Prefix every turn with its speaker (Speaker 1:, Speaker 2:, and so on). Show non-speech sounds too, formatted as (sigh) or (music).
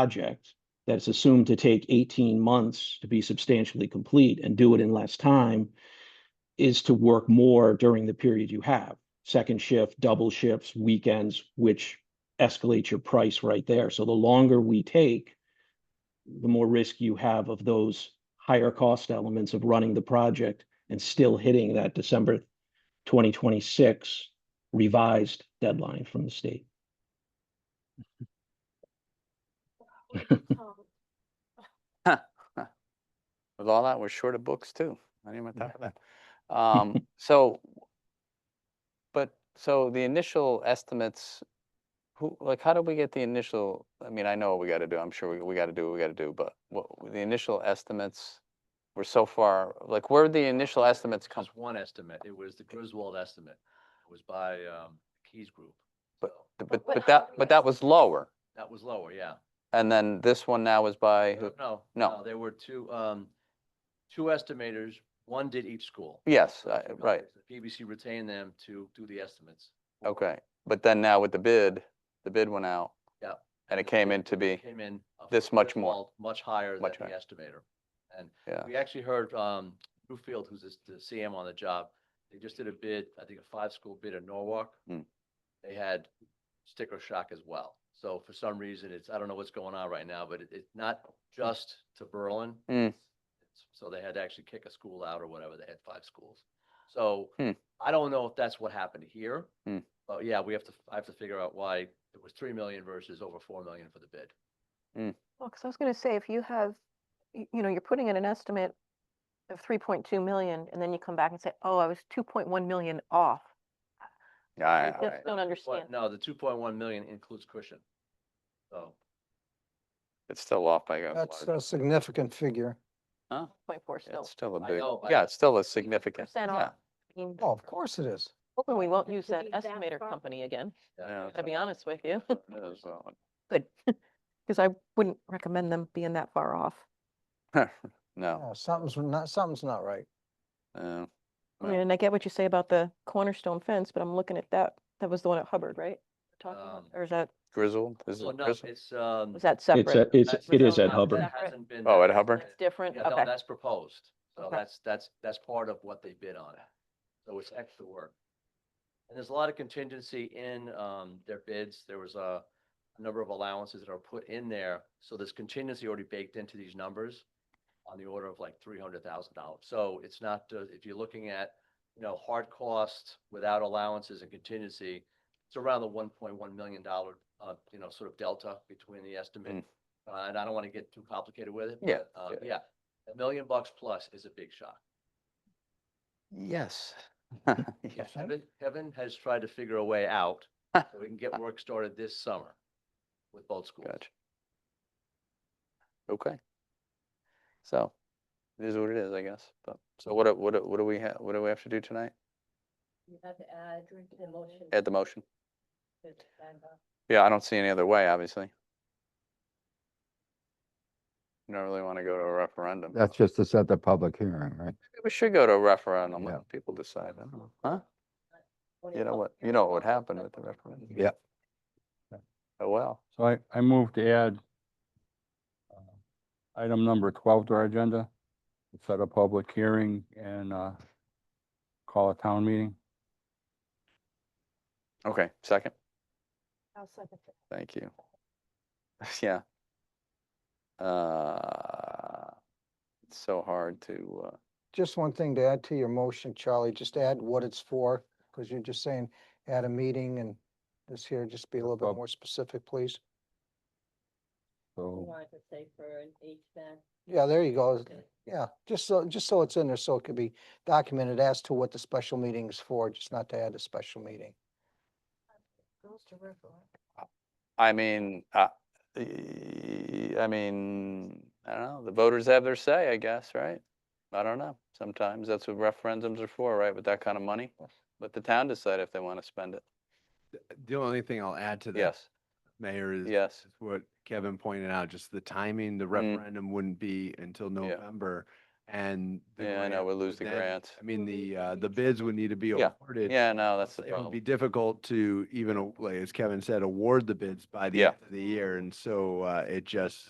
Speaker 1: project that's assumed to take eighteen months to be substantially complete and do it in less time is to work more during the period you have, second shift, double shifts, weekends, which escalates your price right there. So the longer we take, the more risk you have of those higher cost elements of running the project and still hitting that December twenty twenty-six revised deadline from the
Speaker 2: (laughs)
Speaker 1: state.
Speaker 2: With all that, we're short of books too. Not even on top of that. (laughs) Um, so, but, so the initial estimates, who, like, how did we get the initial, I mean, I know what we gotta do. I'm sure we, we gotta do what we gotta do, but what, the initial estimates were so far, like, where did the initial estimates come?
Speaker 3: Just one estimate. It was the Griswold estimate. It was by um, Keys Group.
Speaker 2: But,
Speaker 3: So
Speaker 2: but,
Speaker 4: what
Speaker 2: but that,
Speaker 4: happened
Speaker 2: but that was lower.
Speaker 3: That was lower, yeah.
Speaker 2: And then this one now is by,
Speaker 3: No,
Speaker 2: who-
Speaker 3: No,
Speaker 2: no.
Speaker 3: no, there were two, um, two estimators. One did each school.
Speaker 2: yes,
Speaker 3: Those
Speaker 2: I-
Speaker 3: were
Speaker 2: Uh, right,
Speaker 3: numbers. The PBC retained them to do the estimates.
Speaker 2: okay. But then now with the bid, the bid went out.
Speaker 3: Yeah.
Speaker 2: And it
Speaker 3: the
Speaker 2: came
Speaker 3: bid
Speaker 2: in to be,
Speaker 3: Came in. uh,
Speaker 2: this
Speaker 3: for
Speaker 2: much more.
Speaker 3: Griswold Much higher than
Speaker 2: Much
Speaker 3: the
Speaker 2: higher.
Speaker 3: estimator. And
Speaker 2: Yeah.
Speaker 3: we actually heard um, Newfield, who's this- the CM on the job, they just did a bid, I think a five-school bid in Norwalk.
Speaker 2: Mm.
Speaker 3: They had sticker shock as well. So for some reason, it's, I don't know what's going on right now, but it- it's not just to Berlin.
Speaker 2: Mm.
Speaker 3: It's- So they had to actually kick a school out or whatever. They had five schools. So
Speaker 2: Hmm.
Speaker 3: I don't know if that's what happened here.
Speaker 2: Hmm.
Speaker 3: But yeah, we have to, I have to figure out why it was three million versus over four million for the bid.
Speaker 4: Well, because I was going to say, if you have, y- you know, you're putting in an estimate of 3.2 million, and then you come back and say, oh, I was 2.1 million off. I
Speaker 2: I,
Speaker 4: just don't understand.
Speaker 3: But no, the two point one million includes cushion. So.
Speaker 2: it's still off by a
Speaker 5: That's
Speaker 2: large-
Speaker 5: a significant figure.
Speaker 2: Huh?
Speaker 4: 0.4 still.
Speaker 2: It's still a
Speaker 3: I
Speaker 2: big,
Speaker 3: know, I-
Speaker 2: yeah, it's still a significant,
Speaker 4: 50%
Speaker 2: yeah.
Speaker 4: off. I mean,
Speaker 5: Oh, of course it is.
Speaker 4: Hoping we won't
Speaker 6: To
Speaker 4: use that
Speaker 6: be that
Speaker 4: estimator
Speaker 6: far-
Speaker 4: company again,
Speaker 2: Yeah,
Speaker 4: to be honest with you, (laughs)
Speaker 3: (laughs)
Speaker 2: it is, uh,
Speaker 4: because I wouldn't recommend them being that far off.
Speaker 2: No,
Speaker 5: Yeah, Something's not, something's not right.
Speaker 2: uh,
Speaker 4: I
Speaker 2: Right.
Speaker 4: mean, And I get what you say about the cornerstone fence, but I'm looking at that, that was the one at Hubbard, right? We're Talking about,
Speaker 3: Um,
Speaker 4: or is that,
Speaker 2: grizzled, is
Speaker 3: Well,
Speaker 2: it
Speaker 3: Oh, no,
Speaker 2: grizzled?
Speaker 3: it's, um.
Speaker 4: was that
Speaker 1: It's,
Speaker 4: separate?
Speaker 1: a- it's,
Speaker 3: that's-
Speaker 1: it is
Speaker 4: no,
Speaker 1: at
Speaker 4: no,
Speaker 1: Hubbard.
Speaker 3: that hasn't been-
Speaker 2: Oh,
Speaker 3: that
Speaker 2: at Hubbard?
Speaker 3: hasn't
Speaker 4: That's different,
Speaker 3: been- Yeah, no,
Speaker 4: okay.
Speaker 3: that's proposed. So
Speaker 4: Okay.
Speaker 3: that's, that's, that's part of what they bid on. So it's extra work. And there's a lot of contingency in, um, their bids. There was a number of allowances that are put in there. So there's contingency already baked into these numbers on the order of like three hundred thousand dollars. So it's not, uh, if you're looking at, you know, hard costs without allowances and contingency, it's around the one point one million dollar, uh, you know, sort of delta between the estimate. Uh, and I don't want to get too complicated with it.
Speaker 2: Mm. Yeah,
Speaker 3: but, uh,
Speaker 2: yeah.
Speaker 3: Yeah, a million bucks plus is a big shock.
Speaker 2: Yes.
Speaker 3: Yeah,
Speaker 2: Yes.
Speaker 3: Kevin, Kevin has tried to figure a way out so we can get work started this summer with both schools.
Speaker 2: Gotcha. Okay. So, it is what it is, I guess, but, so what, do- what, do- what do we have, what do we have to do tonight?
Speaker 6: You have to add to the motion.
Speaker 2: Add the motion?
Speaker 6: to the agenda.
Speaker 2: Yeah, I don't see any other way, obviously. You Don't really want to go to a referendum.
Speaker 7: That's just to set the public hearing, right?
Speaker 2: Maybe We should go to a referendum,
Speaker 7: Yeah. Uh-huh.
Speaker 2: let people decide, I don't know. huh?
Speaker 6: Only
Speaker 2: You know
Speaker 6: public
Speaker 2: what, you
Speaker 6: hearing
Speaker 2: know what would
Speaker 6: closed,
Speaker 2: happen
Speaker 6: no
Speaker 2: with the
Speaker 6: public
Speaker 2: referendum?
Speaker 7: Yeah.
Speaker 2: Oh, well,
Speaker 8: So I, I move to add uh, item number twelve to our agenda, to set a public hearing and uh, call a town meeting.
Speaker 2: okay, second,
Speaker 6: I'll second it.
Speaker 2: thank you. (laughs) Yeah. Uh, It's so hard to, uh,
Speaker 5: Just one thing to add to your motion, Charlie, just add what it's for, because you're just saying at a meeting and this here, just be a little bit
Speaker 8: Well-
Speaker 5: more specific, please.
Speaker 6: You
Speaker 8: So
Speaker 6: wanted to say for an HVAC.
Speaker 5: Yeah, there you go.
Speaker 6: Okay.
Speaker 5: Yeah, just so, just so it's in there, so it could be documented as to what the special meeting is for, just not to add a special meeting.
Speaker 6: Goes to referendum.
Speaker 2: I mean, uh, e- I mean, I don't know, the voters have their say, I guess, right? I don't know, sometimes that's what referendums are for, right, with that kind of money, let the town decide if they want to spend it,
Speaker 9: The only thing I'll add to that,
Speaker 2: yes,
Speaker 9: Mayor, is
Speaker 2: yes. Mm.
Speaker 9: is what Kevin pointed out, just the timing, the referendum wouldn't be until November. and. the
Speaker 2: Yeah, I know,
Speaker 9: grant
Speaker 2: we'll
Speaker 9: would
Speaker 2: lose the
Speaker 9: then-
Speaker 2: grant.
Speaker 9: I mean, the, uh, the bids would need to be
Speaker 2: Yeah.
Speaker 9: awarded.
Speaker 2: Yeah, no, that's the
Speaker 9: It would be
Speaker 2: problem.
Speaker 9: difficult to even, uh, like, as Kevin said, award the bids by the
Speaker 2: Yeah.
Speaker 9: end of the year. And so, uh, it just,